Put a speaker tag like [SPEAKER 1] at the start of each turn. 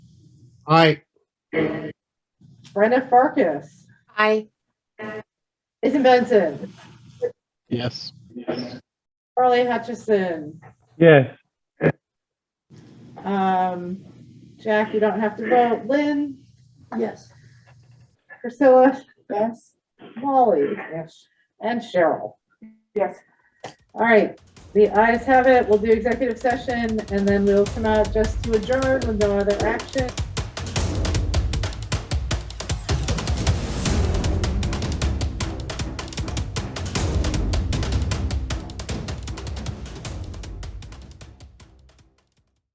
[SPEAKER 1] Aye.
[SPEAKER 2] Brenna Farkas,
[SPEAKER 3] Aye.
[SPEAKER 2] Jason Benson,
[SPEAKER 1] Yes.
[SPEAKER 2] Carly Hutchison.
[SPEAKER 4] Yes.
[SPEAKER 2] Um, Jack, you don't have to vote. Lynn,
[SPEAKER 5] Yes.
[SPEAKER 2] Priscilla,
[SPEAKER 5] Yes.
[SPEAKER 2] Molly,
[SPEAKER 5] Yes.
[SPEAKER 2] and Cheryl.
[SPEAKER 5] Yes.
[SPEAKER 2] All right, the ayes have it. We'll do executive session and then we'll come out just to adjourn with no other action.